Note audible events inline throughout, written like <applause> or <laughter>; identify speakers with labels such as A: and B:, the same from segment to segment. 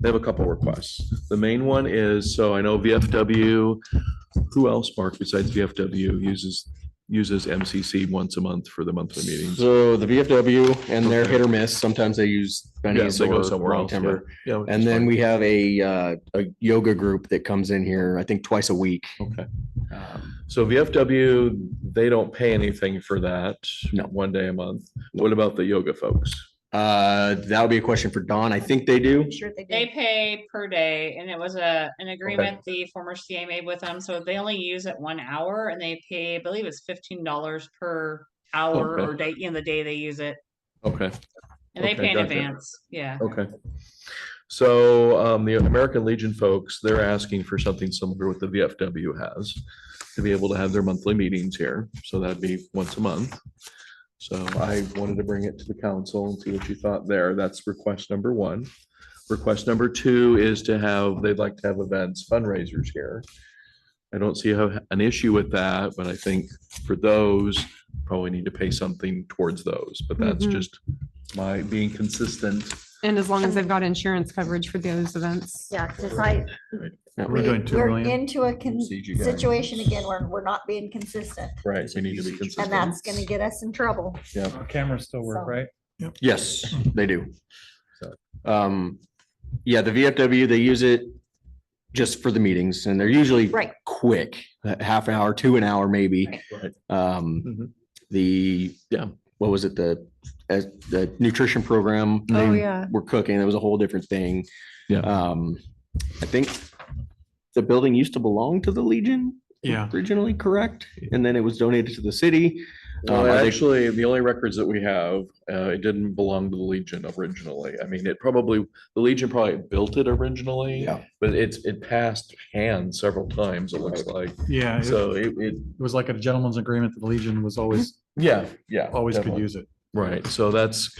A: They have a couple requests. The main one is, so I know VFW, who else, Mark, besides VFW uses, uses MCC once a month for the monthly meetings?
B: So the VFW and they're hit or miss. Sometimes they use
A: Yeah,
B: Benny's
A: so they go
B: or
A: somewhere
B: Long
A: else. yeah.
B: Timber.
A: Yeah, which
B: And
A: is
B: then
A: fine.
B: we have a, uh, a yoga group that comes in here, I think twice a week.
A: Okay.
B: Um,
A: So VFW, they don't pay anything for that.
B: No.
A: One day a month. What about the yoga folks?
B: Uh, that would be a question for Dawn. I think they do.
C: Sure they
D: They
C: do.
D: pay per day and it was a, an agreement the former CA made with them, so they only use it one hour and they pay, I believe it's fifteen dollars per hour
A: Okay.
D: or day, you know, the day they use it.
A: Okay,
D: And they
A: Okay,
D: pay in
A: gotcha.
D: advance, yeah.
A: okay. So um, the American Legion folks, they're asking for something similar to what the VFW has to be able to have their monthly meetings here. So that'd be once a month. So I wanted to bring it to the council and see what you thought there. That's request number one. Request number two is to have, they'd like to have events fundraisers here. I don't see a- an issue with that, but I think for those, probably need to pay something towards those, but that's
E: Mhm.
A: just my being consistent.
E: And as long as they've got insurance coverage for those events.
C: Yeah, because
A: Right,
C: I, we-
F: We're doing two
C: we're
F: million.
C: into a con-
A: Siege you guys.
C: situation again where we're not being consistent
A: right, we need to be
C: and
A: consistent.
C: that's gonna get us in trouble.
F: Our Uh, Cameras still work,
C: So-
F: right?
A: <laughs>
B: Yes, they do.
A: So-
B: Um, yeah, the VFW, they use it just for the meetings and they're usually
C: Right.
B: quick, a half hour, to an hour maybe.
A: Right. Mhm.
B: Um, the,
A: Yeah.
B: what was it? The, as the nutrition program.
E: Oh,
B: they
E: yeah.
B: We're cooking. That was a whole different thing.
A: Yeah.
B: Um, I think the building used to belong to the Legion
F: Yeah.
B: originally, correct? And then it was donated to the city.
A: Well,
B: Um, I think-
A: actually, the only records that we have, uh, it didn't belong to the Legion originally. I mean, it probably, the Legion probably built it originally,
B: Yeah.
A: but it's, it passed hands several times, it looks like.
F: Yeah. It
A: So it, it,
F: it was like a gentleman's agreement that the Legion was
A: <laughs>
F: always,
A: yeah, yeah.
F: always could
A: definitely.
F: use it.
A: Right, so that's,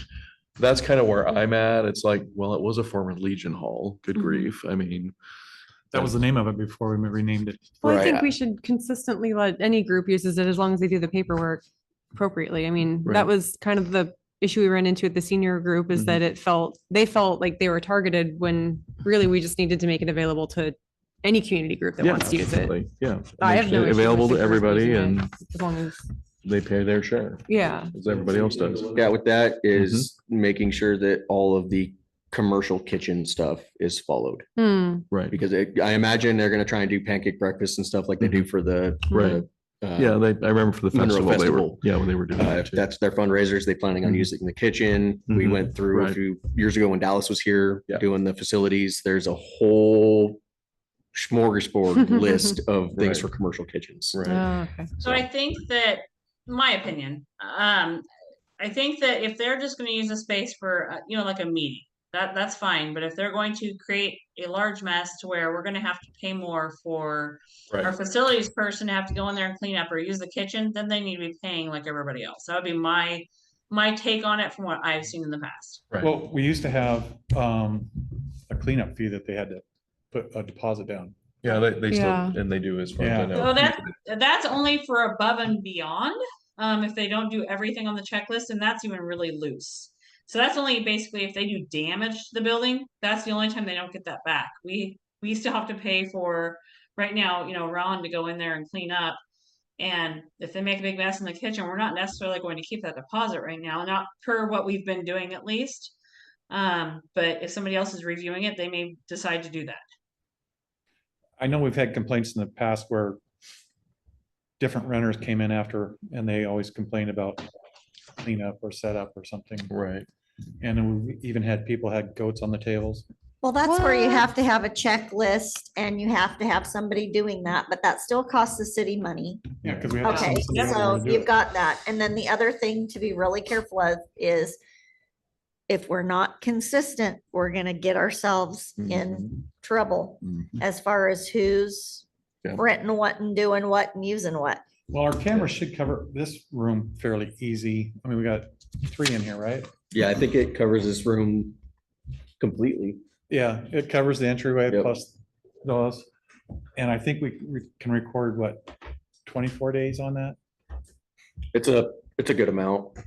A: that's kind of where I'm at. It's like, well, it was a former Legion Hall, good
E: Mhm.
A: grief, I mean.
F: That was the name of it before we renamed it.
E: Well, I
B: Right.
E: think we should consistently let any group uses it as long as they do the paperwork appropriately. I mean,
A: Right.
E: that was kind of the issue we ran into at the senior group
A: Mhm.
E: is that it felt, they felt like they were targeted when really we just needed to make it available to any community group that
A: yeah,
E: wants to use it.
A: absolutely, Yeah.
E: I have no issue with
A: Available
E: the
A: to
E: first
A: everybody
E: person,
A: and
E: As long as,
A: they pay their share,
E: yeah.
A: as everybody else does.
B: Yeah, with that is making sure that all of the commercial kitchen stuff is followed.
E: Hmm.
A: Right,
B: Because it- I imagine they're gonna try and do pancake breakfast and stuff like they do for the.
A: Right.
B: the, uh,
A: yeah, they, I remember for the
B: Mineral
A: festival, they were,
B: Festival.
A: yeah, when they were doing
B: Uh,
A: that
B: if
A: too.
B: that's their fundraisers, they planning on
A: Mhm.
B: using the kitchen. We
A: Mhm.
B: went through a
A: Right.
B: few years ago when Dallas was here
A: Yeah.
B: doing the facilities. There's a whole
A: <laughs>
B: smorgasbord list of
A: Right.
B: things for commercial kitchens.
A: Right.
E: Oh, okay.
D: So I think that, my opinion, um, I think that if they're just gonna use a space for, uh, you know, like a meeting, that, that's fine, but if they're going to create a large mess to where we're gonna have to pay more for our
A: Right.
D: facilities person to have to go in there and clean up or use the kitchen, then they need to be paying like everybody else. That would be my, my take on it from what I've seen in the past.
A: Right.
F: Well, we used to have um, a cleanup fee that they had to put a deposit down.
A: Yeah, they, they still,
E: Yeah.
A: and they do as far as I
F: Yeah.
A: know.
D: So that's, that's only for above and beyond, um, if they don't do everything on the checklist, and that's even really loose. So that's only basically if they do damage to the building, that's the only time they don't get that back. We, we still have to pay for, right now, you know, Ron to go in there and clean up. And if they make a big mess in the kitchen, we're not necessarily going to keep that deposit right now, not per what we've been doing at least. Um, but if somebody else is reviewing it, they may decide to do that.
F: I know we've had complaints in the past where different renters came in after and they always complained about cleanup or setup or something.
A: Right.
F: And then we even had people had goats on the tables.
C: Well, that's where you
E: What?
C: have to have a checklist and you have to have somebody doing that, but that still costs the city money.
F: Yeah, because we had. to
C: Okay,
F: send somebody out there
C: so
F: to do
C: you've
F: it.
C: got that. And then the other thing to be really careful of is if we're not consistent, we're gonna get ourselves
F: Mm-hmm.
A: Mm-hmm.
C: in trouble
A: Mhm.
C: as far as who's
A: Yeah.
C: renting what and doing what and using what.
F: Well, our cameras should cover this room fairly easy. I mean, we got three in here, right?
B: Yeah, I think it covers this room completely.
F: Yeah, it covers the entryway
B: Yep.
F: plus those. And I think we we can record what, twenty-four days on that?
B: It's a, it's a good amount.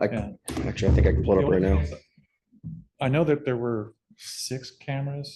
B: I,
F: Yeah.
B: actually, I think I can pull it up right now.
F: I know that there were six cameras